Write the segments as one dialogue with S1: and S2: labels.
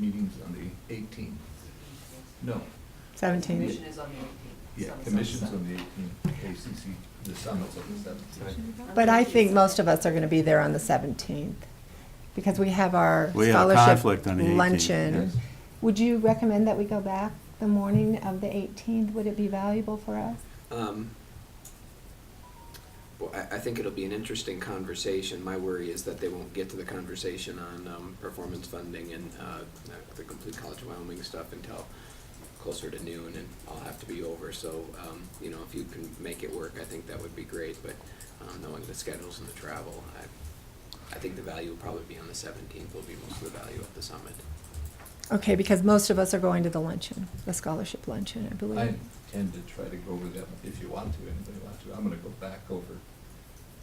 S1: meeting's on the eighteenth. No,
S2: Seventeen.
S3: Commission is on the eighteenth.
S1: yeah, commission's on the eighteenth, ACC, the summit's on the seventeenth.
S2: But I think most of us are going to be there on the seventeenth because we have our
S4: We have a
S2: scholarship
S4: conflict on the 18th,
S2: luncheon.
S1: yes.
S2: Would you recommend that we go back the morning of the eighteenth? Would it be valuable for us?
S5: Um, Well, I, I think it'll be an interesting conversation. My worry is that they won't get to the conversation on um, performance funding and uh, the complete College of Wyoming stuff until closer to noon, and I'll have to be over. So, um, you know, if you can make it work, I think that would be great. But um, knowing the schedules and the travel, I, I think the value will probably be on the 17th. Will be most of the value of the summit.
S2: Okay, because most of us are going to the luncheon, the scholarship luncheon, I
S1: I
S2: believe.
S1: intend to try to go over that, if you want to, anybody wants to, I'm gonna go back over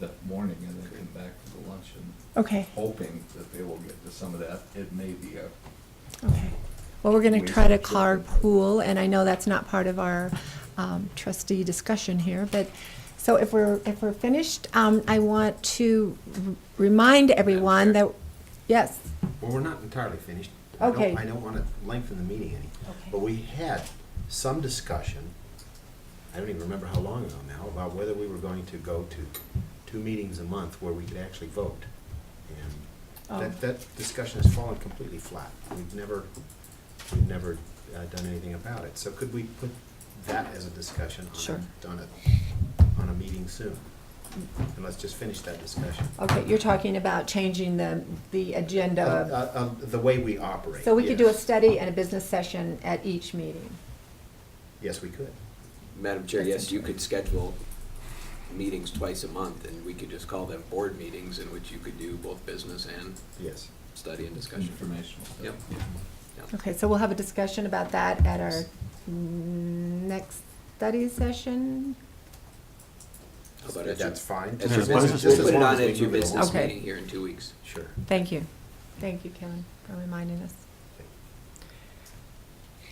S1: that morning and then come back to the luncheon,
S2: Okay,
S1: hoping that they will get to some of that. It may be a
S2: okay. Well, we're going
S1: We
S2: to try to
S1: should check.
S2: carpool, and I know that's not part of our um, trustee discussion here, but, so if we're, if we're finished, um, I want to r- remind everyone that, yes,
S6: Well, we're not entirely finished. I don't-
S2: Okay.
S6: I don't want to lengthen the meeting any,
S2: Okay.
S6: but we had some discussion, I don't even remember how long ago now, about whether we were going to go to two meetings a month where we could actually vote. And
S2: Oh.
S6: that, that discussion has fallen completely flat. We've never, we've never uh, done anything about it. So could we put that as a discussion
S2: Sure.
S6: on a, on a, on a meeting soon? And let's just finish that discussion.
S2: Okay, you're talking about changing the, the
S6: Uh,
S2: agenda.
S6: uh, uh, The way we operate.
S2: So we could do a
S6: yes.
S2: study and a business session at each meeting.
S6: Yes, we could.
S5: Madam Chair,
S2: That's
S5: yes, you could schedule meetings twice a month, and we could just call them board meetings, in which you could do both business and
S6: Yes.
S5: study and discussion.
S1: informational. stuff.
S5: Yep.
S2: Okay, so we'll have a discussion about that at our next study session?
S5: How about at your-
S6: That's fine.
S5: at
S4: Yeah,
S5: your
S4: that's
S5: business-
S4: just
S5: We'll
S4: as
S5: put it
S4: long
S5: on
S6: as we
S5: at your
S6: move it
S5: business
S2: along.
S5: meeting here in two weeks.
S6: Sure.
S2: Thank you. Thank you, Kevin, for reminding us.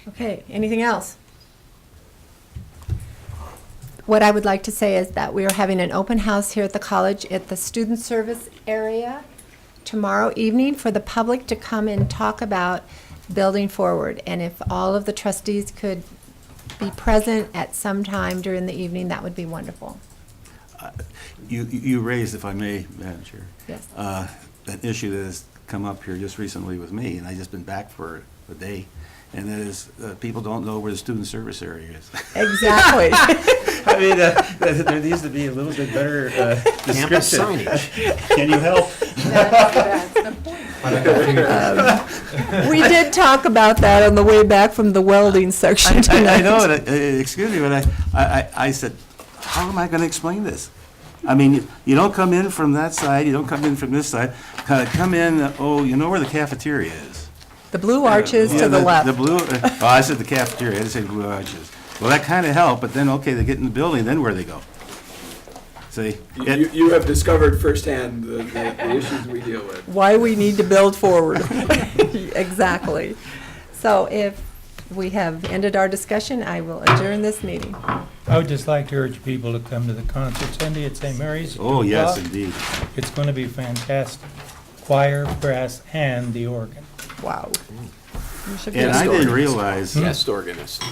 S2: Okay, anything else? What I would like to say is that we are having an open house here at the college at the student service area tomorrow evening for the public to come and talk about building forward. And if all of the trustees could be present at some time during the evening, that would be wonderful.
S4: You, you raised, if I may, Madam Chair.
S2: Yes.
S4: uh, An issue that has come up here just recently with me, and I just been back for a day, and that is, uh, people don't know where the student service area is.
S2: Exactly.
S4: I mean, uh, there needs to be a little bit better uh,
S6: Campus
S4: description.
S6: signage.
S4: Can you help?
S2: We did talk about that on the way back from the welding
S4: I-
S2: section tonight.
S4: I, I know, it. Uh, excuse me, but I, I, I- I said, how am I gonna explain this? I mean, you- you don't come in from that side, you don't come in from this side, Uh, come in, uh, oh, you know where the cafeteria is?
S2: The blue arches
S4: Yeah,
S2: to the
S4: The
S2: left.
S4: blue, uh, oh, I said the cafeteria, I didn't say blue arches. Well, that kinda helped, but then, okay, they get in the building, then where they go? See?
S5: You,
S4: it-
S5: you- you have discovered firsthand the, the- the issues we deal with.
S2: Why we need to build forward. Exactly. So if we have ended our discussion, I will adjourn this meeting.
S7: I would just like to urge people to come to the concert Sunday at St. Mary's.
S4: Oh, yes,
S7: Uh,
S4: indeed.
S7: It's going to be fantastic. Choir, brass, and the organ.
S2: Wow. You should be-
S4: And I didn't realize,
S5: Guest organist.